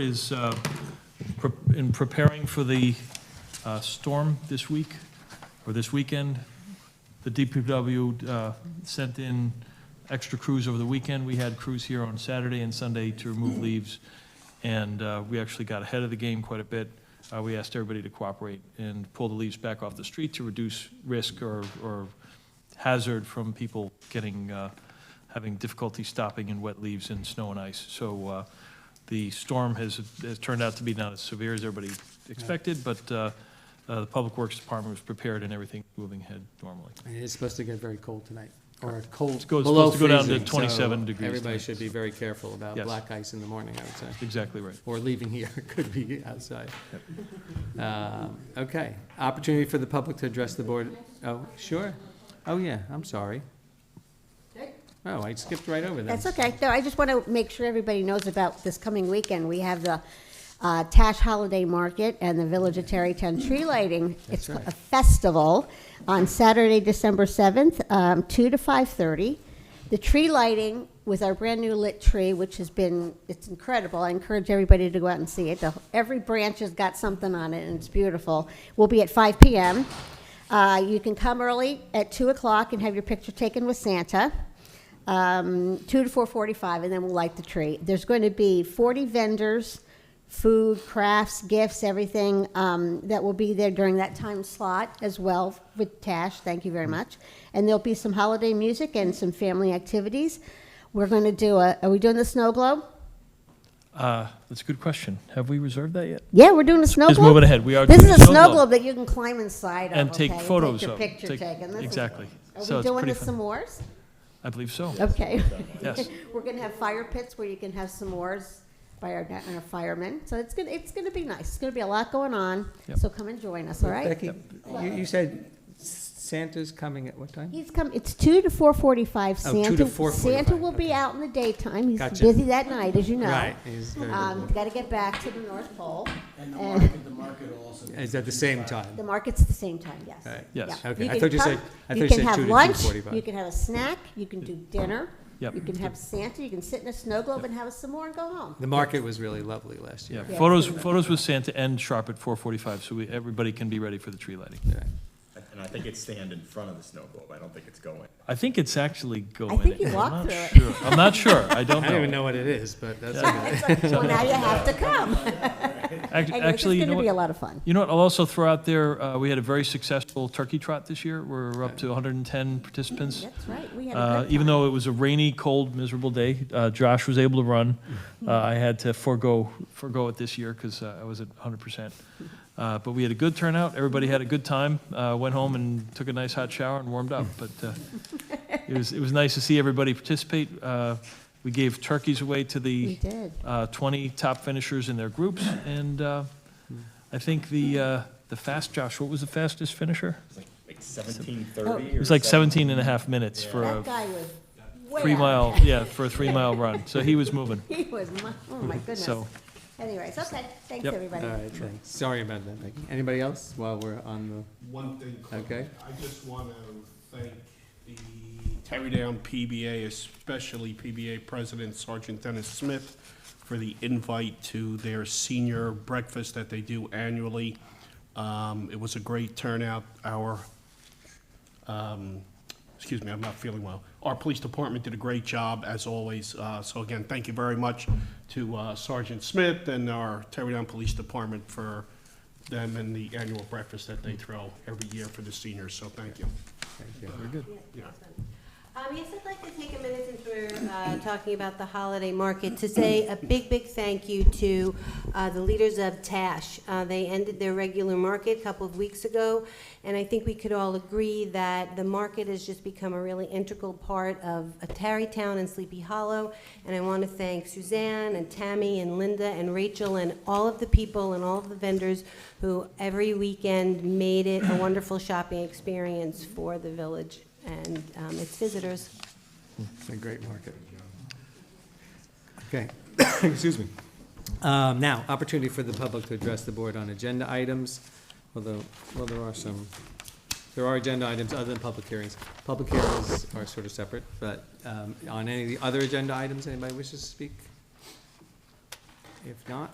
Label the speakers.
Speaker 1: is uh, pre- in preparing for the uh, storm this week, or this weekend, the DPW uh, sent in extra crews over the weekend. We had crews here on Saturday and Sunday to remove leaves, and uh, we actually got ahead of the game quite a bit. Uh, We asked everybody to cooperate and pull the leaves back off the street to reduce risk or or hazard from people getting, uh, having difficulty stopping in wet leaves and snow and ice. So uh, the storm has, has turned out to be not as severe as everybody expected, but uh, uh, the Public Works Department was prepared and everything moving ahead normally.
Speaker 2: And it's supposed to get very cold tonight, or cold,
Speaker 1: It's go- it's
Speaker 2: below
Speaker 1: supposed to go down to
Speaker 2: freezing, so
Speaker 1: 27 degrees
Speaker 2: Everybody
Speaker 1: tonight.
Speaker 2: should be very careful about
Speaker 1: Yes.
Speaker 2: black ice in the morning, I would say,
Speaker 1: Exactly right.
Speaker 2: or leaving here, it could be outside. Um, Okay, opportunity for the public to address the board, oh, sure, oh, yeah, I'm sorry. Oh, I skipped right over that.
Speaker 3: That's okay. No, I just want to make sure everybody knows about this coming weekend. We have the uh, Tash Holiday Market and the Village of Terrytown Tree Lighting.
Speaker 2: Mm-hmm. That's
Speaker 3: It's
Speaker 2: right.
Speaker 3: a festival on Saturday, December 7th, um, 2 to 5:30. The tree lighting with our brand-new lit tree, which has been, it's incredible. I encourage everybody to go out and see it. The- Every branch has got something on it, and it's beautiful. Will be at 5 PM. Uh, You can come early at 2 o'clock and have your picture taken with Santa um, two to four forty-five, and then we'll light the tree. There's going to be forty vendors, food, crafts, gifts, everything um, that will be there during that time slot as well with Tash. Thank you very much. And there'll be some holiday music and some family activities. We're going to do a. Are we doing the snow globe?
Speaker 1: Uh, That's a good question. Have we reserved that yet?
Speaker 3: Yeah, we're doing a snow
Speaker 1: Just
Speaker 3: globe.
Speaker 1: moving ahead. We are
Speaker 3: This
Speaker 1: doing
Speaker 3: is a snow globe that you can climb inside of,
Speaker 1: And take
Speaker 3: okay,
Speaker 1: photos of.
Speaker 3: And take your picture
Speaker 1: Take-
Speaker 3: taken. This is-
Speaker 1: Exactly. So
Speaker 3: Are we
Speaker 1: it's
Speaker 3: doing
Speaker 1: pretty
Speaker 3: the
Speaker 1: fun.
Speaker 3: s'mores?
Speaker 1: I believe so.
Speaker 3: Okay.
Speaker 1: Yes.
Speaker 3: We're gonna have fire pits where you can have s'mores by our, and our firemen. So it's gonna, it's gonna be nice. It's gonna be a lot going on.
Speaker 1: Yep.
Speaker 3: So come and join us, all right?
Speaker 2: Becky, you, you said Santa's coming at what time?
Speaker 3: He's come, it's two to four forty-five.
Speaker 2: Oh, two
Speaker 3: Santa
Speaker 2: to 4:45,
Speaker 3: Santa will
Speaker 2: okay.
Speaker 3: be out in the daytime. He's
Speaker 2: Gotcha.
Speaker 3: busy that night, as you know.
Speaker 2: Right, he's very
Speaker 3: Um,
Speaker 2: busy.
Speaker 3: gotta get back to the North Pole.
Speaker 4: And the
Speaker 3: And-
Speaker 4: market, the market will also. be
Speaker 2: Is at the same
Speaker 3: The
Speaker 2: time?
Speaker 3: market's at the same time, yes.
Speaker 2: All right.
Speaker 1: Yes.
Speaker 3: Yeah.
Speaker 2: Okay, I
Speaker 3: can
Speaker 2: thought you
Speaker 3: come,
Speaker 2: said- I
Speaker 3: you
Speaker 2: thought you
Speaker 3: can
Speaker 2: said
Speaker 3: have
Speaker 2: two to
Speaker 3: lunch,
Speaker 2: 2:45.
Speaker 3: You can have a snack, you can do dinner.
Speaker 1: Yep.
Speaker 3: You can have Santa, you can sit in a snow globe and have a s'more and go home.
Speaker 2: The market was really lovely last
Speaker 1: Yeah,
Speaker 2: year.
Speaker 3: Yeah.
Speaker 1: photos, photos with Santa and sharp at 4:45, so we, everybody can be ready for the tree lighting.
Speaker 2: Yeah.
Speaker 5: And I think it's stand in front of the snow globe, I don't think it's going.
Speaker 1: I think it's actually going.
Speaker 3: think you
Speaker 1: in. I'm
Speaker 3: walked
Speaker 1: not
Speaker 3: through it.
Speaker 1: sure. I'm not sure. I don't
Speaker 2: I don't even
Speaker 1: know.
Speaker 2: know what it is, but that's okay.
Speaker 3: It's like, Well, now you have to come.
Speaker 1: Act-
Speaker 3: Anyway,
Speaker 1: Actually, you
Speaker 3: It's
Speaker 1: know
Speaker 3: going to be
Speaker 1: what?
Speaker 3: a lot of fun.
Speaker 1: You know what, I'll also throw out there, uh, we had a very successful turkey trot this year. We're up to 110 participants.
Speaker 3: That's right, we had a
Speaker 1: Uh,
Speaker 3: good
Speaker 1: Even
Speaker 3: time.
Speaker 1: though it was a rainy, cold, miserable day, uh, Josh was able to run. Uh, I had to forego, forego it this year because I wasn't 100%. Uh, But we had a good turnout, everybody had a good time, Uh, went home and took a nice hot shower and warmed up. But uh, it was, it was nice to see everybody participate. Uh, We gave turkeys away to the
Speaker 3: We did.
Speaker 1: uh, 20 top finishers in their groups, and uh, I think the, uh, the fast, Josh, what was the fastest finisher?
Speaker 5: It's like- like seventeen thirty or?
Speaker 1: Oh, It was like
Speaker 5: 17
Speaker 1: 17 and a half minutes for
Speaker 3: That
Speaker 1: a
Speaker 3: guy was way out.
Speaker 1: three-mile, yeah, for a three-mile run, so he was moving,
Speaker 3: He was, mu- oh my goodness.
Speaker 1: so.
Speaker 3: Anyways, okay, thanks,
Speaker 1: Yep.
Speaker 3: everybody.
Speaker 2: All right, thanks. Sorry about that, Becky. Anybody else while we're on
Speaker 4: One thing. quick.
Speaker 2: Okay.
Speaker 4: I just want to thank the Terrytown PBA, especially PBA President Sergeant Dennis Smith, for the invite to their senior breakfast that they do annually. Um, It was a great turnout. Our um, excuse me, I'm not feeling well. Our police department did a great job, as always. Uh, So again, thank you very much to uh, Sergeant Smith and our Terrytown Police Department for them and the annual breakfast that they throw every year for the seniors, so thank you.
Speaker 2: the?
Speaker 6: Um, yes, I'd like to take a minute since we're uh, talking about the holiday market to say a big, big thank you to uh, the leaders of Tash. Uh, They ended their regular market a couple of weeks ago, and I think we could all agree that the market has just become a really integral part of Tarrytown and Sleepy Hollow. And I want to thank Suzanne and Tammy and Linda and Rachel and all of the people and all of the vendors who every weekend made it a wonderful shopping experience for the village and um, its visitors.
Speaker 2: It's a great market. Okay, excuse me. Um, Now, opportunity for the public to address the board on agenda items, although, well, there are some, there are agenda items other than public hearings. Public hearings are sort of separate, but um, on any of the other agenda items, anybody wishes to speak? If not,